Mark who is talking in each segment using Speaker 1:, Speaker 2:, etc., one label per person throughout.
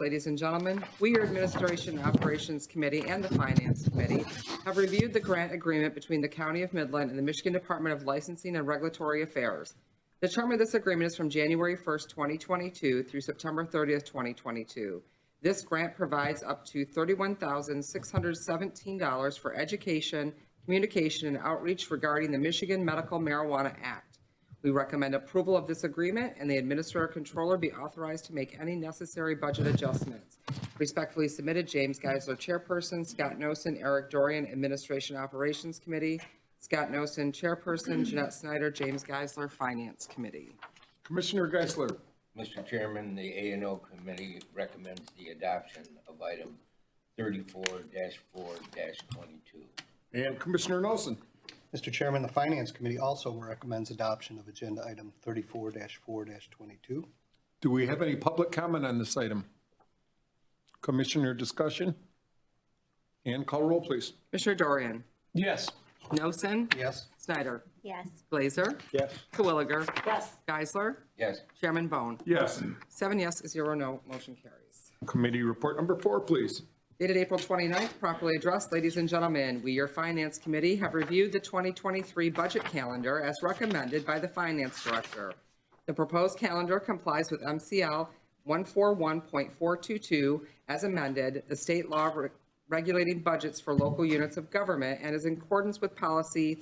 Speaker 1: ladies and gentlemen. We, your Administration and Operations Committee and the Finance Committee, have reviewed the grant agreement between the County of Midland and the Michigan Department of Licensing and Regulatory Affairs. The term of this agreement is from January 1st, 2022 through September 30th, 2022. This grant provides up to $31,617 for education, communication, and outreach regarding the Michigan Medical Marijuana Act. We recommend approval of this agreement and the Administrator Controller be authorized to make any necessary budget adjustments. Respectfully submitted, James Geisler, Chairperson, Scott Noson, Eric Dorian, Administration Operations Committee, Scott Noson, Chairperson, Jeanette Snyder, James Geisler, Finance Committee.
Speaker 2: Commissioner Geisler,
Speaker 3: Mr. Chairman, the A and O Committee recommends the adoption of item thirty-four four twenty-two.
Speaker 2: and Commissioner Nelson.
Speaker 4: Mr. Chairman, the Finance Committee also recommends adoption of Agenda Item 34-4-22.
Speaker 2: Do we have any public comment on this item? Commissioner discussion? And call roll, please.
Speaker 1: Commissioner Dorian?
Speaker 2: Yes.
Speaker 1: Noson?
Speaker 4: Yes.
Speaker 1: Snyder?
Speaker 5: yes,
Speaker 1: Glazer?
Speaker 2: Yes.
Speaker 1: Twilliger? Yes. Geisler?
Speaker 3: Yes,
Speaker 1: Chairman Bone?
Speaker 2: Yes.
Speaker 1: Seven yes, zero no, motion carries.
Speaker 2: Committee report number four, please.
Speaker 1: Dated April 29th, properly addressed, ladies and gentlemen, we, your Finance Committee, have reviewed the 2023 budget calendar as recommended by the Finance Director. The proposed calendar complies with MCL 141.422 as amended, the state law re- regulating budgets for local units of government, and is in accordance with Policy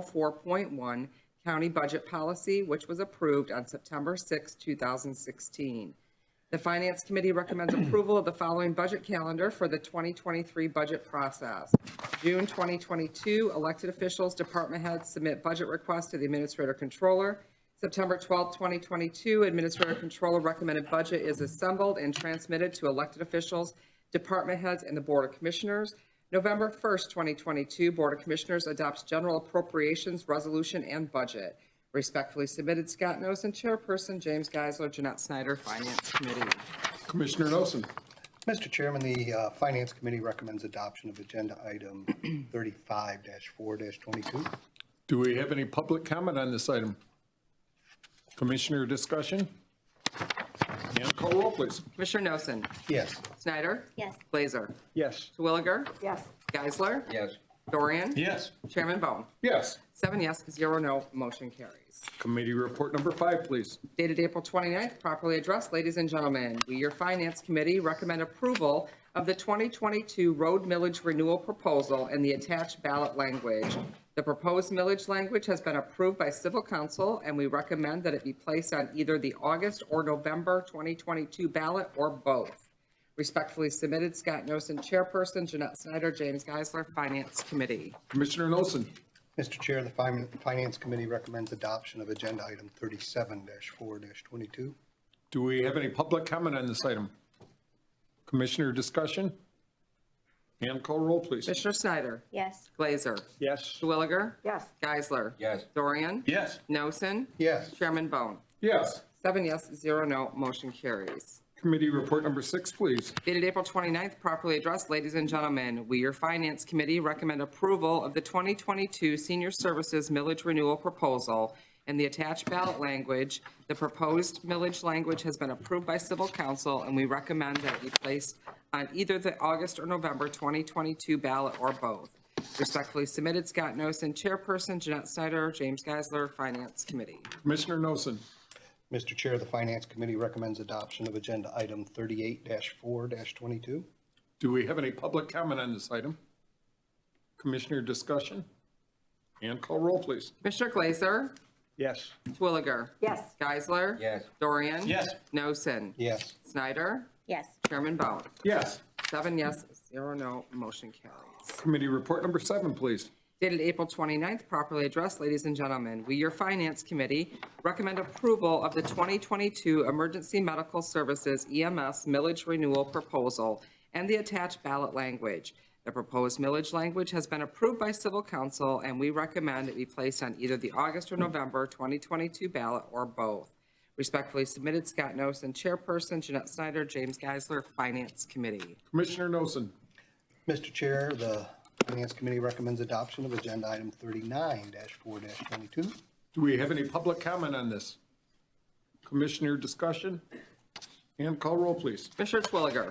Speaker 1: 304.1, County Budget Policy, which was approved on September 6, 2016. The Finance Committee recommends approval of the following budget calendar for the 2023 budget process. June 2022, elected officials, department heads submit budget requests to the Administrator Controller. September 12, 2022, Administrator Controller recommended budget is assembled and transmitted to elected officials, department heads, and the Board of Commissioners. November 1st, 2022, Board of Commissioners adopts general appropriations resolution and budget. Respectfully submitted, Scott Noson, Chairperson, James Geisler, Jeanette Snyder, Finance Committee.
Speaker 2: Commissioner Nelson.
Speaker 4: Mr. Chairman, the uh, Finance Committee recommends adoption of Agenda Item 35-4-22.
Speaker 2: Do we have any public comment on this item? Commissioner discussion? And call roll, please.
Speaker 1: Commissioner Noson,
Speaker 4: Yes.
Speaker 1: Snyder,
Speaker 5: yes,
Speaker 1: Blazer,
Speaker 2: Yes.
Speaker 1: Twilliger. Yes. Geisler,
Speaker 3: yes,
Speaker 1: Dorian.
Speaker 2: Yes.
Speaker 1: Chairman Bone.
Speaker 2: Yes.
Speaker 1: Seven yes, zero no, motion carries.
Speaker 2: Committee report number five, please.
Speaker 1: dated April 29th, properly addressed, ladies and gentlemen. We, your Finance Committee, recommend approval of the 2022 road millage renewal proposal and the attached ballot language. The proposed millage language has been approved by Civil Council, and we recommend that it be placed on either the August or November 2022 ballot or both. Respectfully submitted, Scott Noson, Chairperson, Jeanette Snyder, James Geisler, Finance Committee.
Speaker 2: Commissioner Nelson.
Speaker 4: Mr. Chair, the Fin- Finance Committee recommends adoption of Agenda Item 37-4-22.
Speaker 2: Do we have any public comment on this item? Commissioner discussion? And call roll, please.
Speaker 1: Commissioner Snyder?
Speaker 5: yes,
Speaker 1: Glazer?
Speaker 2: Yes.
Speaker 1: Twilliger? Yes. Geisler?
Speaker 3: yes,
Speaker 1: Dorian?
Speaker 2: Yes.
Speaker 1: Noson?
Speaker 4: Yes.
Speaker 1: Chairman Bone.
Speaker 2: Yes.
Speaker 1: Seven yes, zero no, motion carries.
Speaker 2: Committee report number six, please.
Speaker 1: Dated April 29th, properly addressed, ladies and gentlemen, we, your Finance Committee, recommend approval of the 2022 Senior Services Millage Renewal Proposal and the attached ballot language. The proposed millage language has been approved by Civil Council, and we recommend that it be placed on either the August or November 2022 ballot or both. Respectfully submitted, Scott Noson, Chairperson, Jeanette Snyder, James Geisler, Finance Committee.
Speaker 2: Commissioner Nelson.
Speaker 4: Mr. Chair, the Finance Committee recommends adoption of Agenda Item 38-4-22.
Speaker 2: Do we have any public comment on this item? Commissioner discussion? And call roll, please.
Speaker 1: Commissioner Glazer?
Speaker 2: Yes.
Speaker 1: Twilliger. Yes. Geisler.
Speaker 3: Yes.
Speaker 1: Dorian.
Speaker 2: Yes.
Speaker 1: Noson.
Speaker 4: Yes.
Speaker 1: Snyder.
Speaker 5: yes,
Speaker 1: Chairman Bone.
Speaker 2: Yes.
Speaker 1: Seven yes, zero no, motion carries.
Speaker 2: Committee report number seven, please.
Speaker 1: Dated April 29th, properly addressed, ladies and gentlemen, we, your Finance Committee, recommend approval of the 2022 Emergency Medical Services EMS Millage Renewal Proposal and the attached ballot language. The proposed millage language has been approved by Civil Council, and we recommend it be placed on either the August or November 2022 ballot or both. Respectfully submitted, Scott Noson, Chairperson, Jeanette Snyder, James Geisler, Finance Committee.
Speaker 2: Commissioner Nelson.
Speaker 4: Mr. Chair, the Finance Committee recommends adoption of Agenda Item 39-4-22.
Speaker 2: Do we have any public comment on this? Commissioner discussion?
Speaker 6: And call roll, please.
Speaker 2: Commissioner Twilliger.